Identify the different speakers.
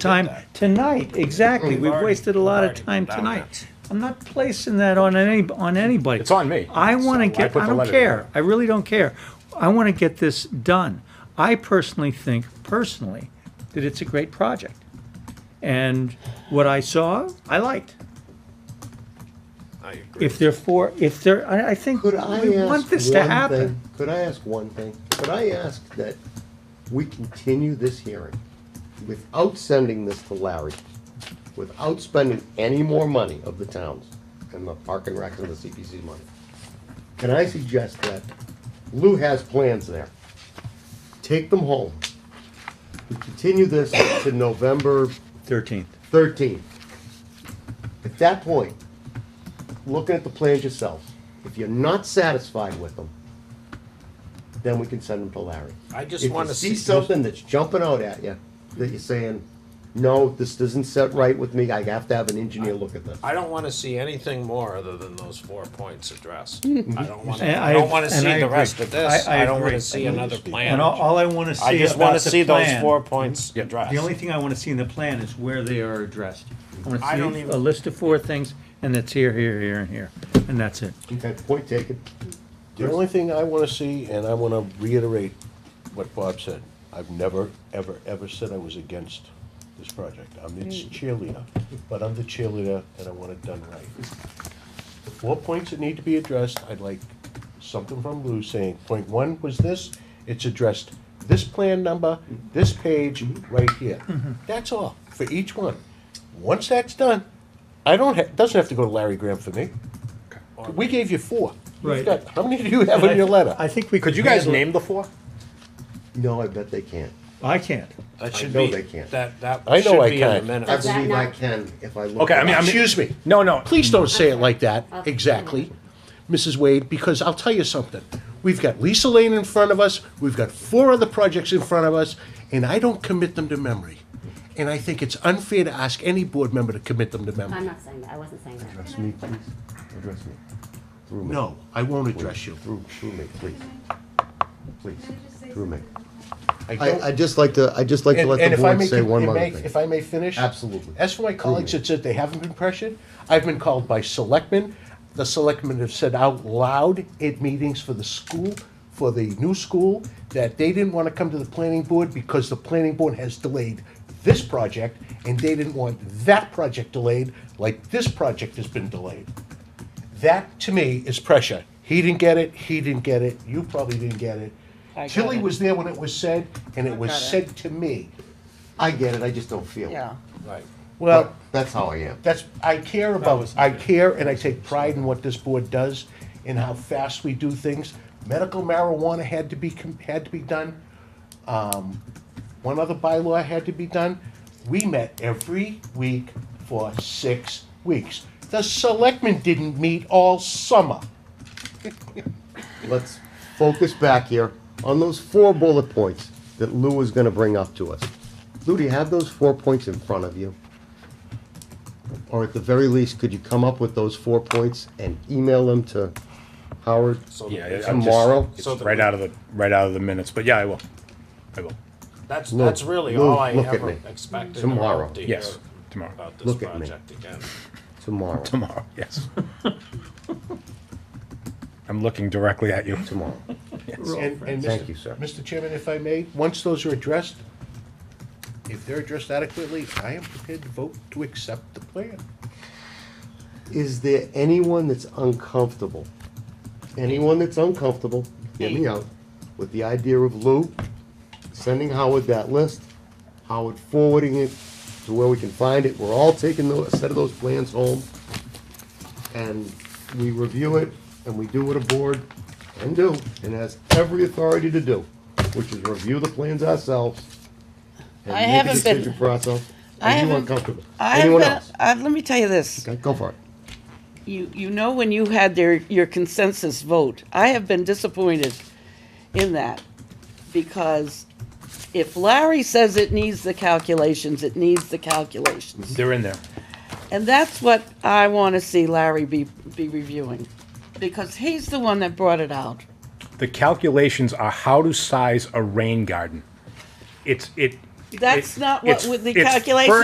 Speaker 1: time tonight, exactly.
Speaker 2: We've
Speaker 1: We've
Speaker 2: already-
Speaker 1: wasted a lot of
Speaker 2: we've
Speaker 1: time
Speaker 2: already done
Speaker 1: tonight. I'm not placing that on any, on anybody.
Speaker 3: It's on me.
Speaker 1: I want to
Speaker 3: So I
Speaker 1: get,
Speaker 3: put
Speaker 1: I
Speaker 3: the
Speaker 1: don't
Speaker 3: letter
Speaker 1: care.
Speaker 3: in.
Speaker 1: I really don't care. I want to get this done. I personally think, personally, that it's a great project. And what I saw, I liked.
Speaker 2: I agree.
Speaker 1: If they're for, if they're, I, I think we
Speaker 4: Could I ask
Speaker 1: want this to
Speaker 4: one
Speaker 1: happen.
Speaker 4: thing? Could I ask one thing? Could I ask that we continue this hearing without sending this to Larry, without spending any more money of the towns and the park and rec and the CPC money? Can I suggest that Lou has plans there? Take them home. We continue this to November
Speaker 1: Thirteenth.
Speaker 4: 13. At that point, looking at the plans yourself, if you're not satisfied with them, then we can send them to Larry.
Speaker 2: I just
Speaker 4: If you
Speaker 2: wanna see-
Speaker 4: See something that's jumping out at you, that you're saying, no, this doesn't set right with me, I have to have an engineer look at this.
Speaker 2: I don't want to see anything more other than those four points addressed. I don't want
Speaker 1: Mm-hmm. And
Speaker 2: to,
Speaker 1: I-
Speaker 2: I don't want to
Speaker 1: and I
Speaker 2: see the
Speaker 1: agree.
Speaker 2: rest of this.
Speaker 1: I- I
Speaker 2: I don't want
Speaker 1: agree.
Speaker 2: to see another plan.
Speaker 1: And all, all I want to see
Speaker 2: I just want to
Speaker 1: about the
Speaker 2: see those
Speaker 1: plan-
Speaker 2: four points addressed.
Speaker 1: The only thing I want to see in the plan is where they are addressed. I want
Speaker 2: I
Speaker 1: to
Speaker 2: don't
Speaker 1: see
Speaker 2: even-
Speaker 1: a list of four things, and that's here, here, here, and here, and that's it.
Speaker 4: Okay, point taken.
Speaker 5: The only thing I wanna see, and I wanna reiterate what Bob said, I've never, ever, ever said I was against this project. I'm its cheerleader, but I'm the cheerleader and I want it done right. The four points that need to be addressed, I'd like something from Lou saying, point one was this, it's addressed this plan number, this page, right here. That's all, for each one. Once that's done, I don't, ha- doesn't have to go to Larry Graham for me. We gave you four. You've
Speaker 1: Right.
Speaker 5: got- How many do you have in your letter?
Speaker 1: I think we could.
Speaker 3: Could you guys
Speaker 1: handle it.
Speaker 3: name the four?
Speaker 4: No, I bet they can't.
Speaker 1: I can't.
Speaker 2: That should
Speaker 4: know
Speaker 2: be,
Speaker 4: they can't.
Speaker 2: that, that
Speaker 5: I know
Speaker 2: should
Speaker 5: I
Speaker 2: be in the
Speaker 5: can't.
Speaker 4: I
Speaker 2: minutes.
Speaker 6: that
Speaker 4: believe I
Speaker 6: not-
Speaker 4: can if I look.
Speaker 3: Okay, I mean, I'm.
Speaker 5: Excuse me.
Speaker 3: No, no.
Speaker 5: Please don't say it like that,
Speaker 6: Okay.
Speaker 5: exactly, Mrs. Wade, because I'll tell you something. We've got Lisa Lane in front of us, we've got four other projects in front of us, and I don't commit them to memory. And I think it's unfair to ask any board member to commit them to
Speaker 6: I'm
Speaker 5: memory.
Speaker 6: not saying that, I wasn't saying that.
Speaker 4: Address me, please. Address me. Through me.
Speaker 5: No, I won't address you.
Speaker 4: Through, through me, please. Please, through me.
Speaker 5: I don't-
Speaker 4: I, I'd just like to, I'd just like to
Speaker 5: And,
Speaker 4: let
Speaker 5: and
Speaker 4: the
Speaker 5: if I
Speaker 4: board
Speaker 5: may,
Speaker 4: say one
Speaker 5: if
Speaker 4: other
Speaker 5: may-
Speaker 4: thing.
Speaker 5: if I may finish?
Speaker 4: Absolutely.
Speaker 5: As for my colleagues
Speaker 4: me.
Speaker 5: that said they haven't been pressured, I've been called by selectmen. The selectmen have said out loud at meetings for the school, for the new school, that they didn't want to come to the planning board because the planning board has delayed this project and they didn't want that project delayed, like this project has been delayed. That, to me, is pressure. He didn't get it, he didn't get it, you probably didn't get it.
Speaker 7: I got
Speaker 5: Tilly
Speaker 7: it.
Speaker 5: was there when it was said, and it was
Speaker 7: got it.
Speaker 5: said to me.
Speaker 4: I get it, I just don't feel it.
Speaker 7: Yeah.
Speaker 2: Right.
Speaker 5: Well,
Speaker 4: That's how I am.
Speaker 5: that's, I care about, I care and I take pride in what this board does and how fast we do things. Medical marijuana had to be, com- had to be done. Um, One other bylaw had to be done. We met every week for six weeks. The selectmen didn't meet all summer.
Speaker 4: Let's focus back here on those four bullet points that Lou was gonna bring up to us. Lou, do you have those four points in front of you? Or at the very least, could you come up with those four points and email them to Howard?
Speaker 2: So
Speaker 3: Yeah, I'm just-
Speaker 4: Tomorrow?
Speaker 3: It's
Speaker 2: So the-
Speaker 3: right out of the, right out of the minutes, but yeah, I will. I will.
Speaker 2: That's,
Speaker 4: Look-
Speaker 2: that's really
Speaker 4: Lou,
Speaker 2: all I
Speaker 4: look at
Speaker 2: ever
Speaker 4: me.
Speaker 2: expected.
Speaker 4: Tomorrow.
Speaker 2: to
Speaker 3: Yes,
Speaker 2: hear
Speaker 3: tomorrow.
Speaker 2: About this
Speaker 4: Look at me.
Speaker 2: project again.
Speaker 4: Tomorrow,
Speaker 3: Tomorrow, yes. I'm looking directly at you.
Speaker 4: tomorrow.
Speaker 5: And, and
Speaker 4: Thank
Speaker 5: Mr.
Speaker 4: you, sir.
Speaker 5: Mr. Chairman, if I may, once those are addressed, if they're addressed adequately, I am prepared to vote to accept the plan.
Speaker 4: Is there anyone that's uncomfortable? Anyone that's uncomfortable, hear me out, with the idea of Lou sending Howard that list, Howard forwarding it to where we can find it, we're all taking tho- a set of those plans home, and we review it, and we do what a board can do, and has every authority to do, which is review the plans ourselves. and
Speaker 7: I
Speaker 4: make a
Speaker 7: haven't been-
Speaker 4: decision for ourselves.
Speaker 7: I
Speaker 4: Are you
Speaker 7: haven't-
Speaker 4: uncomfortable?
Speaker 7: I
Speaker 4: Anyone
Speaker 7: haven't-
Speaker 4: else?
Speaker 7: Uh, let me tell you this.
Speaker 4: Okay, go for it.
Speaker 7: You, you know when you had their, your consensus vote, I have been disappointed in that. Because if Larry says it needs the calculations, it needs the calculations.
Speaker 3: They're in there.
Speaker 7: And that's what I want to see Larry be, be reviewing. Because he's the one that brought it out.
Speaker 3: The calculations are how to size a rain garden. It's, it,
Speaker 7: That's not what
Speaker 3: It's-
Speaker 7: with the
Speaker 3: it's
Speaker 7: calculations